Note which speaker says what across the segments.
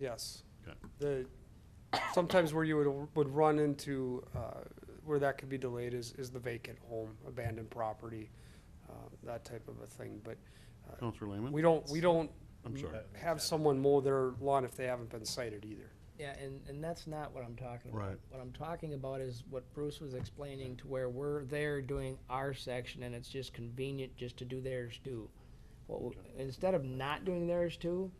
Speaker 1: Yes.
Speaker 2: Okay.
Speaker 1: The, sometimes where you would, would run into, uh, where that could be delayed is, is the vacant home, abandoned property, uh, that type of a thing, but
Speaker 2: Counselor Lehman?
Speaker 1: we don't, we don't
Speaker 2: I'm sorry.
Speaker 1: have someone mow their lawn if they haven't been cited either.
Speaker 3: Yeah, and, and that's not what I'm talking about.
Speaker 2: Right.
Speaker 3: What I'm talking about is what Bruce was explaining to where we're there doing our section and it's just convenient just to do theirs too. What, w- instead of not doing theirs too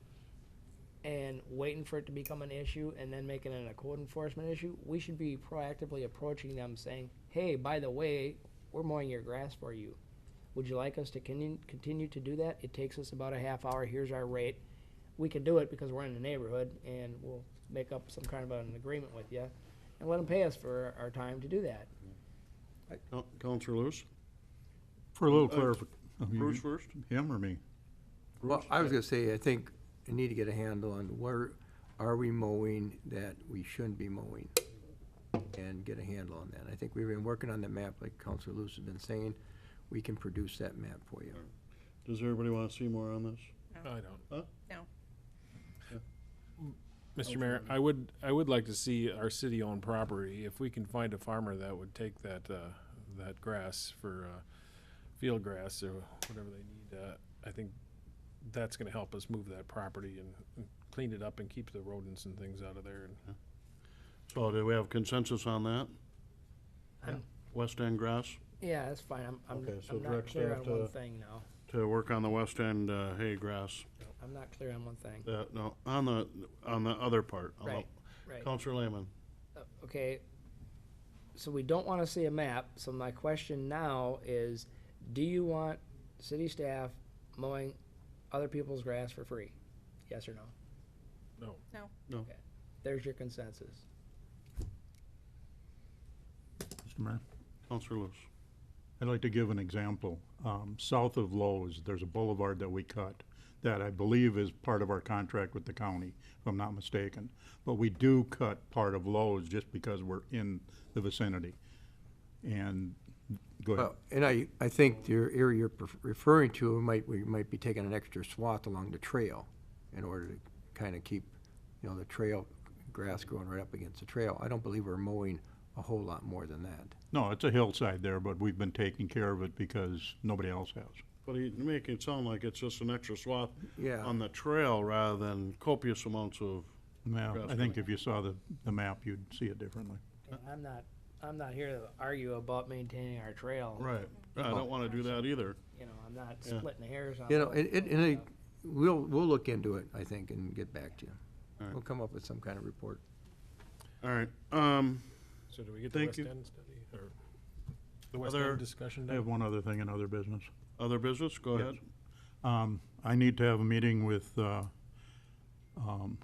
Speaker 3: and waiting for it to become an issue and then making it a code enforcement issue, we should be proactively approaching them saying, hey, by the way, we're mowing your grass for you. Would you like us to continue, continue to do that? It takes us about a half hour. Here's our rate. We can do it because we're in the neighborhood and we'll make up some kind of an agreement with you and let them pay us for our time to do that.
Speaker 2: Coun- Counselor Lewis?
Speaker 4: For a little
Speaker 2: Uh,
Speaker 4: clarification.
Speaker 2: Bruce first?
Speaker 4: Him or me?
Speaker 5: Well, I was gonna say, I think I need to get a handle on where are we mowing that we shouldn't be mowing? And get a handle on that. I think we've been working on that map, like Counselor Lewis has been saying. We can produce that map for you.
Speaker 2: Does everybody want to see more on this?
Speaker 6: I
Speaker 2: Huh?
Speaker 6: don't.
Speaker 7: No.
Speaker 6: Mr. Mayor, I would, I would like to see our city-owned property, if we can find a farmer that would take that, uh, that grass for, uh, field grass or whatever they need, uh, I think that's gonna help us move that property and and clean it up and keep the rodents and things out of there and
Speaker 2: So do we have consensus on that?
Speaker 3: I'm-
Speaker 2: West End grass,
Speaker 3: Yeah, that's fine. I'm, I'm,
Speaker 2: Okay, so
Speaker 3: I'm not
Speaker 2: direct
Speaker 3: clear on
Speaker 2: staff
Speaker 3: one
Speaker 2: to-
Speaker 3: thing now.
Speaker 2: to work on the West End uh, hay grass.
Speaker 3: I'm not clear on one thing.
Speaker 2: Uh, No, on the, on the other part. on the-
Speaker 3: Right, right.
Speaker 2: Counselor Lehman?
Speaker 3: Uh, okay, so we don't want to see a map, so my question now is, do you want city staff mowing other people's grass for free? Yes or no?
Speaker 6: No.
Speaker 7: No.
Speaker 2: No.
Speaker 3: Okay. There's your consensus.
Speaker 4: Mr. Mayor?
Speaker 2: Counselor Lewis?
Speaker 4: I'd like to give an example. Um, south of Lowe's, there's a boulevard that we cut that I believe is part of our contract with the county, if I'm not mistaken. But we do cut part of Lowe's just because we're in the vicinity. And, go ahead.
Speaker 2: Oh.
Speaker 5: Well, and I, I think your area you're pref- referring to might, we might be taking an extra swath along the trail in order to kinda keep, you know, the trail, grass growing right up against the trail. I don't believe we're mowing a whole lot more than that.
Speaker 4: No, it's a hillside there, but we've been taking care of it because nobody else has.
Speaker 2: But you make it sound like it's just an extra swath
Speaker 5: Yeah.
Speaker 2: on the trail rather than copious amounts of,
Speaker 4: Well, I
Speaker 2: Grass
Speaker 4: think if you saw the, the map, you'd see it differently.
Speaker 2: Uh,
Speaker 3: And I'm not, I'm not here to argue about maintaining our trail.
Speaker 2: right, I don't want to do that either.
Speaker 3: You know, I'm not
Speaker 2: Yeah.
Speaker 3: splitting hairs on.
Speaker 5: You know, it, it, and it, we'll, we'll look into it, I think, and get back to you.
Speaker 2: All right.
Speaker 5: We'll come up with some kind of report.
Speaker 2: All right, um,
Speaker 6: So do we get the
Speaker 2: Thank
Speaker 6: West
Speaker 2: you.
Speaker 6: End study or the West
Speaker 2: Other-
Speaker 6: End discussion
Speaker 4: I
Speaker 6: done?
Speaker 4: have one other thing in other business.
Speaker 2: other business, go ahead.
Speaker 4: Um, I need to have a meeting with, uh, um,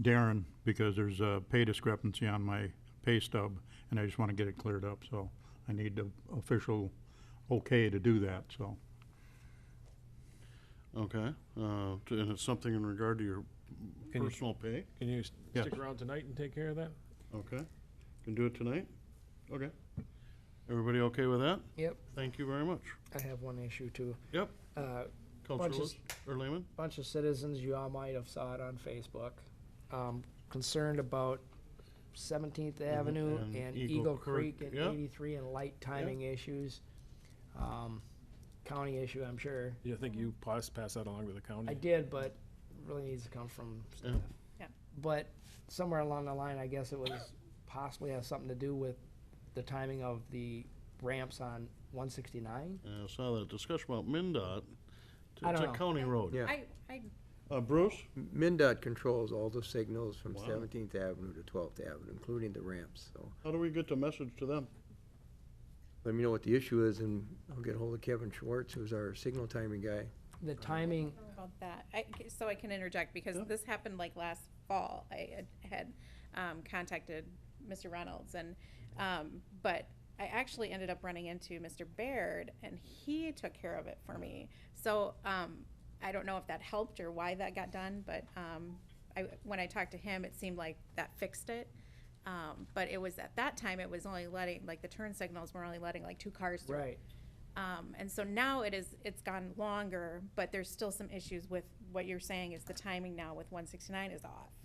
Speaker 4: Darren because there's a pay discrepancy on my pay stub and I just wanna get it cleared up, so I need the official okay to do that, so.
Speaker 2: Okay, uh, t- and it's something in regard to your
Speaker 6: Can you-
Speaker 2: personal pay,
Speaker 6: Can you s-
Speaker 4: Yes.
Speaker 6: stick around tonight and take care of that?
Speaker 2: okay? Can do it tonight? Okay. Everybody okay with that?
Speaker 3: Yep,
Speaker 2: Thank you very much.
Speaker 3: I have one issue too.
Speaker 2: Yep,
Speaker 3: Uh,
Speaker 2: Counselor
Speaker 3: Bunch of s-
Speaker 2: Lewis, or Lehman?
Speaker 3: bunch of citizens, you all might have saw it on Facebook, um, concerned about Seventeenth Avenue
Speaker 2: Mm-hmm. and
Speaker 3: and
Speaker 2: Eagle
Speaker 3: Eagle
Speaker 2: Creek,
Speaker 3: Creek and
Speaker 2: yeah.
Speaker 3: eighty-three and light timing issues. Um, county issue, I'm sure.
Speaker 6: You think you pass, pass that along to the county?
Speaker 3: I
Speaker 2: Mm.
Speaker 3: did, but really needs to come from staff.
Speaker 7: Yeah.
Speaker 3: But somewhere along the line, I guess it was possibly has something to do with the timing of the ramps on one sixty-nine?
Speaker 2: Yeah, I saw that discussion about MinDOT. It's
Speaker 3: I don't
Speaker 2: a
Speaker 3: know.
Speaker 2: county road.
Speaker 5: Yeah.
Speaker 7: I, I,
Speaker 2: Uh, Bruce?
Speaker 5: MinDOT controls all the signals from
Speaker 2: Wow.
Speaker 5: Seventeenth Avenue to Twelfth Avenue, including the ramps, so
Speaker 2: How do we get the message to them?
Speaker 5: let me know what the issue is, and I'll get hold of Kevin Schwartz, who's our signal timing guy.
Speaker 3: The timing,
Speaker 7: don't know about that. I, so I can interject because
Speaker 2: Yeah.
Speaker 7: this happened like last fall. I had- had, um, contacted Mr. Reynolds and, um, but I actually ended up running into Mr. Baird and he took care of it for me. So, um, I don't know if that helped or why that got done, but, um, I, when I talked to him, it seemed like that fixed it. Um, but it was at that time, it was only letting, like the turn signals were only letting like two cars through.
Speaker 3: right.
Speaker 7: Um, and so now it is, it's gone longer, but there's still some issues with what you're saying is the timing now with one sixty-nine is off.